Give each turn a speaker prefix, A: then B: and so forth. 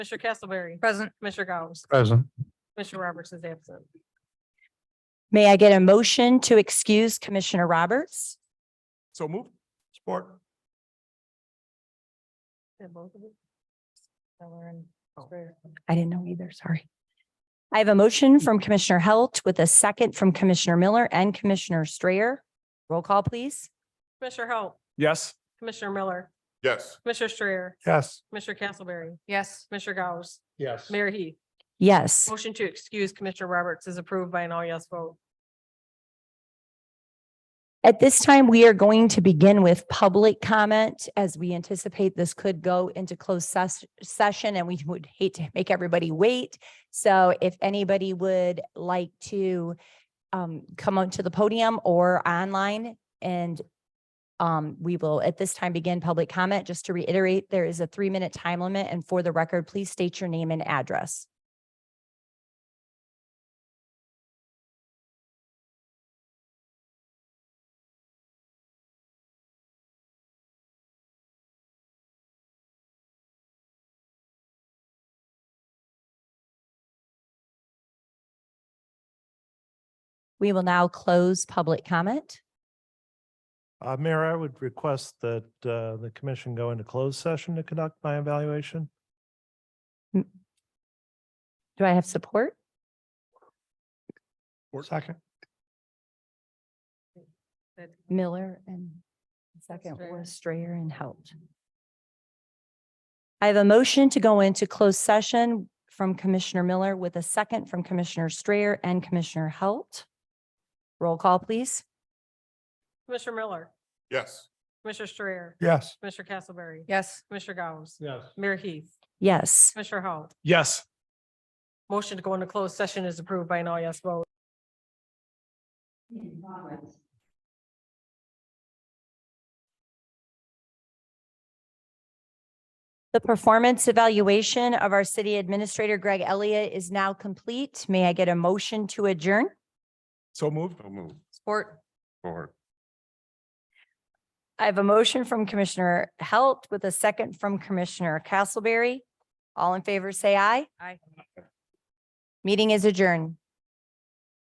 A: Mr. Castleberry.
B: Present.
A: Mr. Gauss.
C: Present.
A: Mr. Roberts is absent.
D: May I get a motion to excuse Commissioner Roberts?
C: So moved. Support.
A: And both of them. Heller and Strayer.
D: I didn't know either, sorry. I have a motion from Commissioner Halt with a second from Commissioner Miller and Commissioner Strayer. Roll call, please.
A: Commissioner Halt,
C: Yes.
A: Commissioner Miller,
C: Yes.
A: Mr. Strayer,
C: Yes.
A: Mr. Castleberry,
B: Yes.
A: Mr. Gauss,
C: Yes.
A: Mayor Heath.
D: Yes.
A: Motion to excuse Commissioner Roberts is approved by an all yes vote.
D: At this time, we are going to begin with public comment as we anticipate this could go into closed ses- session and we would hate to make everybody wait. So if anybody would like to um, come on to the podium or online and um, we will at this time begin public comment. Just to reiterate, there is a three-minute time limit and for the record, please state your name and address. We will now close public comment.
E: Uh, Mayor, I would request that, uh, the commission go into closed session to conduct my evaluation.
D: Do I have support?
C: Second.
A: That-
D: Miller and second
A: Strayer.
D: was Strayer and Halt. I have a motion to go into closed session from Commissioner Miller with a second from Commissioner Strayer and Commissioner Halt. Roll call, please.
A: Commissioner Miller,
C: Yes.
A: Mr. Strayer,
C: Yes.
A: Mr. Castleberry,
B: Yes.
A: Mr. Gauss,
C: Yes.
A: Mayor Heath,
D: Yes.
A: Mr. Halt.
C: Yes.
A: Motion to go into closed session is approved by an all yes vote.
D: The performance evaluation of our city administrator Greg Elliott is now complete. May I get a motion to adjourn?
C: So moved. So moved.
B: Support.
C: Support.
D: I have a motion from Commissioner Halt with a second from Commissioner Castleberry. All in favor, say aye.
B: Aye.
D: Meeting is adjourned.